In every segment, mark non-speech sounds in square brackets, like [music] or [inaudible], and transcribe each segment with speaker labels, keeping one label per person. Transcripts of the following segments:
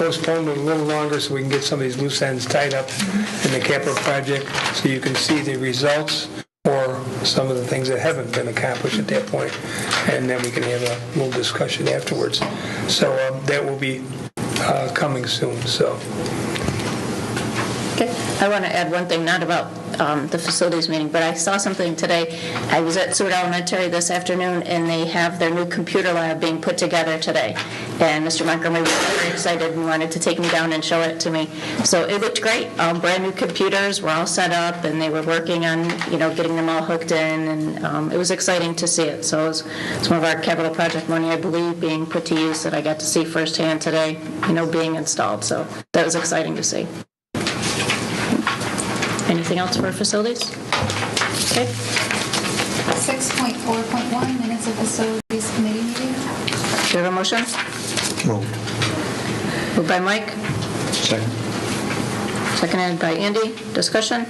Speaker 1: postponed it a little longer so we can get some of these loose ends tied up in the capital project, so you can see the results or some of the things that haven't been accomplished at that point, and then we can have a little discussion afterwards. So um, that will be uh, coming soon, so.
Speaker 2: Okay, I want to add one thing, not about um, the facilities meeting, but I saw something today. I was at Seward Elementary this afternoon, and they have their new computer lab being put together today. And Mr. Montgomery was very excited and wanted to take me down and show it to me. So it looked great, Um, brand-new computers were all set up, and they were working on, you know, getting them all hooked in, and um, it was exciting to see it. So it was some of our capital project money, I believe, being put to use that I got to see firsthand today, you know, being installed. So that was exciting to see. Anything else for facilities? Okay,
Speaker 3: 6.4.1, minutes of facilities committee meeting.
Speaker 2: do you have a motion?
Speaker 4: Moved.
Speaker 2: Moved by Mike,
Speaker 4: Second.
Speaker 2: seconded by Andy. Discussion?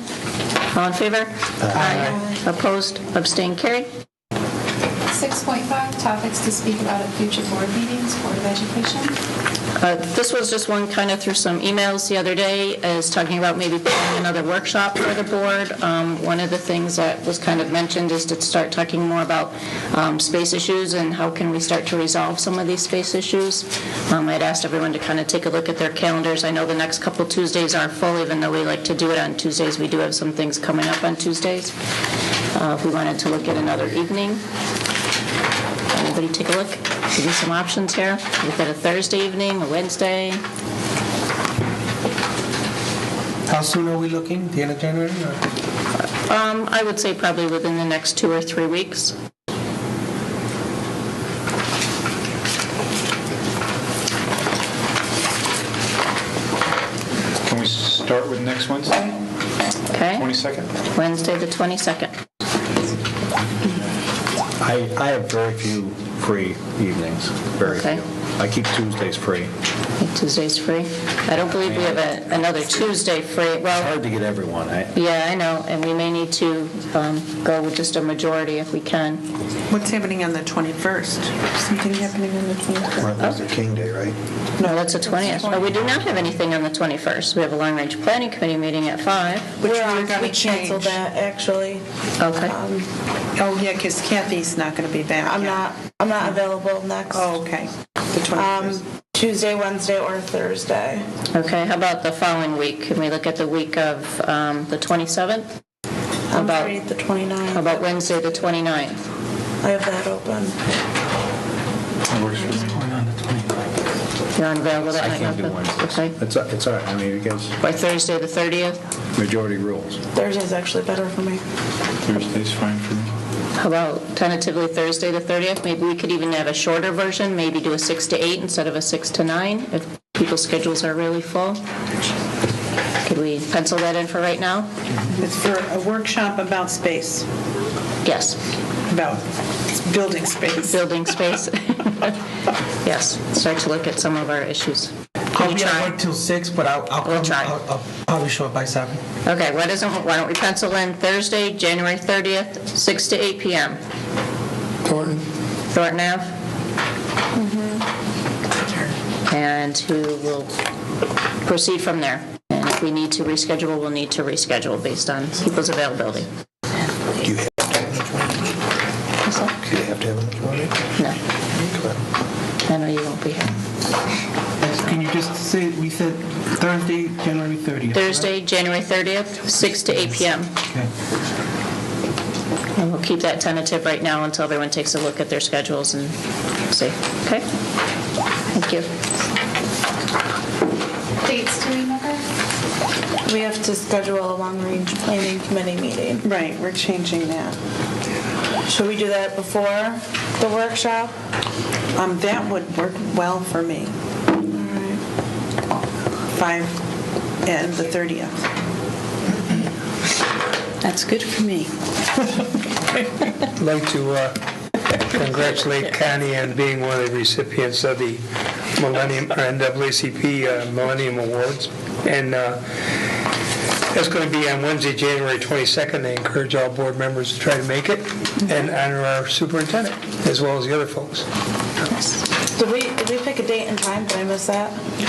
Speaker 2: All in favor? Aye. Opposed? Abstained? Carried?
Speaker 3: 6.5, topics to speak about at future board meetings, Board of Education.
Speaker 2: Uh, This was just one kind of through some emails the other day, is talking about maybe planning another workshop for the board. Um, One of the things that was kind of mentioned is to start talking more about um, space issues and how can we start to resolve some of these space issues. Um, I'd asked everyone to kind of take a look at their calendars. I know the next couple Tuesdays are full, even though we like to do it on Tuesdays. We do have some things coming up on Tuesdays. Uh, If we wanted to look at another evening, Everybody take a look, give you some options here. We've got a Thursday evening, a Wednesday,
Speaker 4: How soon are we looking? The end of January? or-
Speaker 2: um, I would say probably within the next two or three weeks.
Speaker 5: Can we start with next Wednesday,
Speaker 2: Okay?
Speaker 5: 22nd?
Speaker 2: Wednesday, the 22nd.
Speaker 6: I, I have very few free evenings, very
Speaker 2: Okay.
Speaker 6: few. I keep Tuesdays free.
Speaker 2: Tuesday's free. I don't believe we have a- another Tuesday free. Well,
Speaker 6: Hard to get everyone, I,
Speaker 2: yeah, I know, and we may need to um, go with just a majority if we can.
Speaker 7: What's happening on the 21st? Something happening on the 21st?
Speaker 4: Martin Luther King Day, right?
Speaker 2: No, that's the 20th. Oh, we do not have anything on the 21st. We have a long-range planning committee meeting at 5.
Speaker 7: Which
Speaker 8: We're
Speaker 7: we're
Speaker 8: on-
Speaker 7: going to
Speaker 8: We canceled
Speaker 7: change.
Speaker 8: that, actually.
Speaker 2: Okay.
Speaker 7: Oh, yeah, because Kathy's not going to be back.
Speaker 8: I'm
Speaker 7: yet.
Speaker 8: not, I'm not available next
Speaker 7: Oh, okay. The
Speaker 8: um,
Speaker 7: 21st.
Speaker 8: Tuesday, Wednesday, or Thursday.
Speaker 2: Okay, how about the following week? Can we look at the week of um, the 27th? How
Speaker 8: I'm
Speaker 2: about,
Speaker 8: free the
Speaker 2: how
Speaker 8: 29th.
Speaker 2: about Wednesday, the 29th?
Speaker 8: I have that open.
Speaker 2: You're unavailable that
Speaker 6: I
Speaker 2: night?
Speaker 6: can't do Wednesdays.
Speaker 2: Okay.
Speaker 6: It's, a- it's all right, I mean, because
Speaker 2: Or Thursday, the 30th?
Speaker 6: majority rules.
Speaker 8: Thursday's actually better for me.
Speaker 5: Thursday's fine for me.
Speaker 2: How about tentatively Thursday, the 30th? Maybe we could even have a shorter version, maybe do a 6 to 8 instead of a 6 to 9, if people's schedules are really full. Could we pencil that in for right now?
Speaker 7: It's for a workshop about space,
Speaker 2: Yes,
Speaker 7: about building space.
Speaker 2: building space. [laughs] Yes, start to look at some of our issues. Can
Speaker 4: I'll
Speaker 2: you
Speaker 4: be
Speaker 2: try?
Speaker 4: at work till six, but I'll, I'll
Speaker 2: We'll
Speaker 4: come,
Speaker 2: try.
Speaker 4: I'll I'll probably show up by seven.
Speaker 2: Okay, why doesn't, why don't we pencil in Thursday, January 30th, 6 to 8 p.m.?
Speaker 1: Thornton?
Speaker 2: Thornton Ave? And who will proceed from there. And if we need to reschedule, we'll need to reschedule based on people's availability.
Speaker 4: Do you have to have
Speaker 2: That's all?
Speaker 4: a majority? Do you have to have a majority?
Speaker 2: No, I know you won't be here.
Speaker 4: Can you just say, we said Thursday, January 30th?
Speaker 2: Thursday, January 30th, 6 to 8 p.m.
Speaker 4: Okay.
Speaker 2: And we'll keep that tentative right now until everyone takes a look at their schedules and see. Okay? Thank you.
Speaker 3: Dates to remember?
Speaker 8: We have to schedule a long-range planning committee meeting.
Speaker 7: Right, we're changing that.
Speaker 8: Should we do that before the workshop?
Speaker 7: Um, That would work well for me. 5 and the 30th. That's good for me.
Speaker 1: I'd like to uh, congratulate Connie on being one of the recipients of the Millennium, or NAACP uh, Millennium Awards. And uh, that's going to be on Wednesday, January 22nd. I encourage all board members to try to make it and honor our superintendent, as well as the other folks.
Speaker 8: Did we, did we pick a date and time? Did I miss that?